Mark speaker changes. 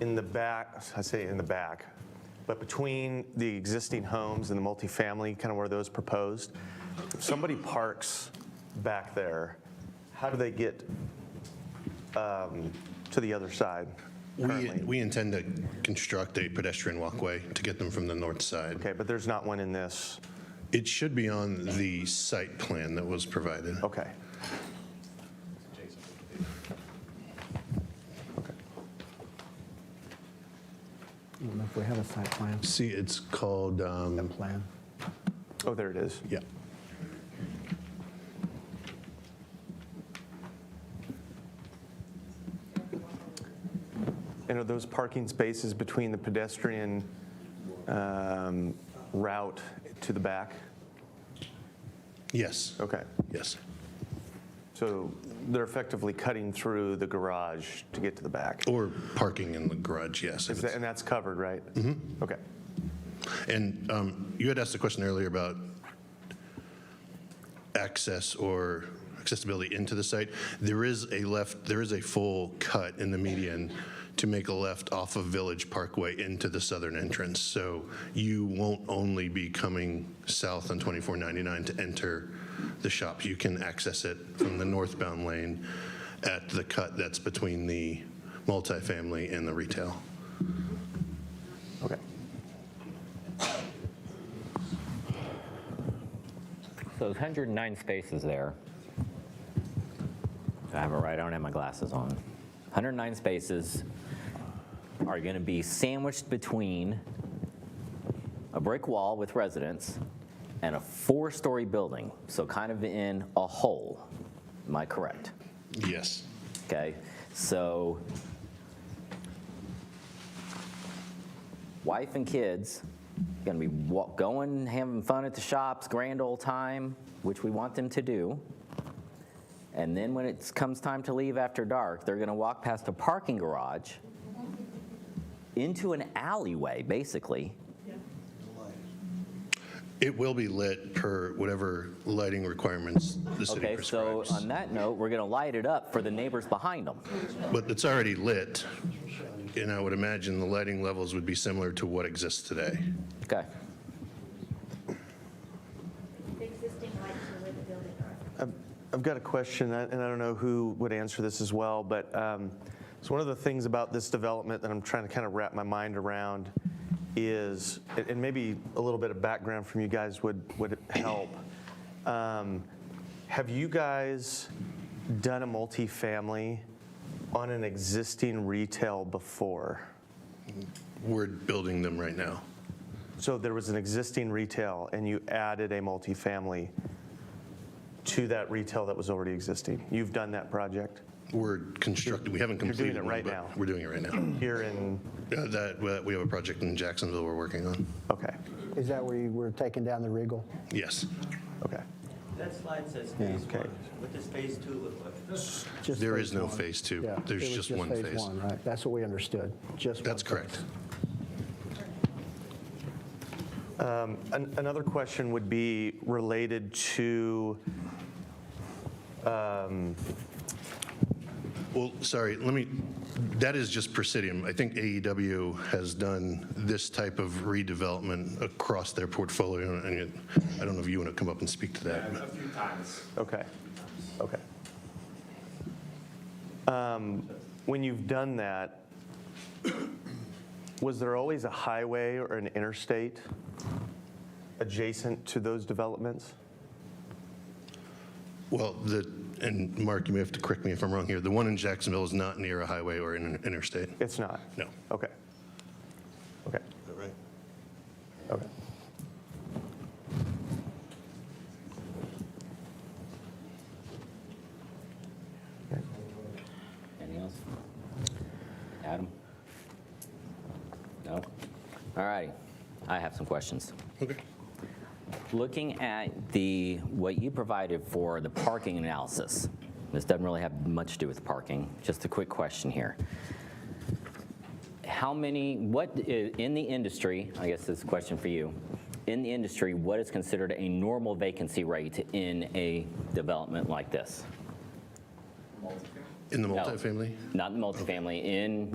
Speaker 1: in the back, I say in the back, but between the existing homes and the multifamily, kind of where those proposed, if somebody parks back there, how do they get um, to the other side
Speaker 2: We,
Speaker 1: currently?
Speaker 2: we intend to construct a pedestrian walkway to get them from the north side.
Speaker 1: Okay, but there's not one in this,
Speaker 2: It should be on the site plan that was provided.
Speaker 1: okay.
Speaker 3: I don't know if we have a site plan.
Speaker 2: See, it's called, um,
Speaker 3: Plan.
Speaker 1: Oh, there it is.
Speaker 2: yeah.
Speaker 1: And are those parking spaces between the pedestrian um, route to the back?
Speaker 2: Yes,
Speaker 1: Okay,
Speaker 2: yes.
Speaker 1: so they're effectively cutting through the garage to get to the back.
Speaker 2: Or parking in the garage, yes. if
Speaker 1: Is
Speaker 2: it's-
Speaker 1: that- And that's covered, right? Mm-hmm. Okay.
Speaker 2: And um, you had asked a question earlier about access or accessibility into the site. There is a left, there is a full cut in the median to make a left off of Village Parkway into the southern entrance. So you won't only be coming south on 2499 to enter the shop. You can access it from the northbound lane at the cut that's between the multifamily and the retail.
Speaker 1: Okay.
Speaker 4: So there's 109 spaces there. If I have it right, I don't have my glasses on. 109 spaces are going to be sandwiched between a brick wall with residents and a four-story building, so kind of in a hole. Am I correct?
Speaker 2: Yes.
Speaker 4: Okay, so wife and kids gonna be wa- going, having fun at the shops, grand old time, which we want them to do. And then when it comes time to leave after dark, they're gonna walk past a parking garage into an alleyway, basically.
Speaker 2: It will be lit per whatever lighting requirements the city
Speaker 4: Okay, so
Speaker 2: prescribes.
Speaker 4: on that note, we're gonna light it up for the neighbors behind them.
Speaker 2: But it's already lit, and I would imagine the lighting levels would be similar to what exists today.
Speaker 4: Okay,
Speaker 5: The existing lights are where the building are.
Speaker 1: I've- I've got a question, I- and I don't know who would answer this as well, but um, so one of the things about this development that I'm trying to kind of wrap my mind around is, and- and maybe a little bit of background from you guys would, would help. Um, Have you guys done a multifamily on an existing retail before?
Speaker 2: We're building them right now.
Speaker 1: So there was an existing retail, and you added a multifamily to that retail that was already existing? You've done that project?
Speaker 2: We're constructing, we haven't
Speaker 1: You're doing
Speaker 2: completed.
Speaker 1: it
Speaker 2: one,
Speaker 1: right
Speaker 2: but
Speaker 1: now.
Speaker 2: We're doing it right now.
Speaker 1: Here in,
Speaker 2: Uh, That, we have a project in Jacksonville we're working on.
Speaker 1: okay,
Speaker 3: Is that where you were taking down the Regal?
Speaker 2: Yes.
Speaker 1: okay.
Speaker 6: That slide says phase
Speaker 1: okay.
Speaker 6: one. What does phase two look like?
Speaker 3: Just
Speaker 2: There
Speaker 3: phase
Speaker 2: is no
Speaker 3: one.
Speaker 2: phase two.
Speaker 3: Yeah,
Speaker 2: There's
Speaker 3: it was
Speaker 2: just one phase.
Speaker 3: one, right? That's what we understood, just. one
Speaker 2: That's
Speaker 3: phase.
Speaker 2: correct.
Speaker 1: An- Another question would be related to,
Speaker 2: Well, sorry, let me, that is just Presidium. I think AEW has done this type of redevelopment across their portfolio, and it- I don't know if you want to come up and speak to that. but-
Speaker 1: okay, okay. Um, When you've done that, was there always a highway or an interstate adjacent to those developments?
Speaker 2: Well, the, and Mark, you may have to correct me if I'm wrong here, the one in Jacksonville is not near a highway or an interstate?
Speaker 1: It's not?
Speaker 2: No.
Speaker 1: Okay. Okay, okay.
Speaker 4: Anything else? Adam? No? All righty. I have some questions.
Speaker 2: Okay.
Speaker 4: Looking at the, what you provided for the parking analysis, this doesn't really have much to do with parking, just a quick question here. How many, what, i- in the industry, I guess this is a question for you, in the industry, what is considered a normal vacancy rate in a development like this?
Speaker 2: In the
Speaker 4: No.
Speaker 2: multifamily?
Speaker 4: Not in multifamily, in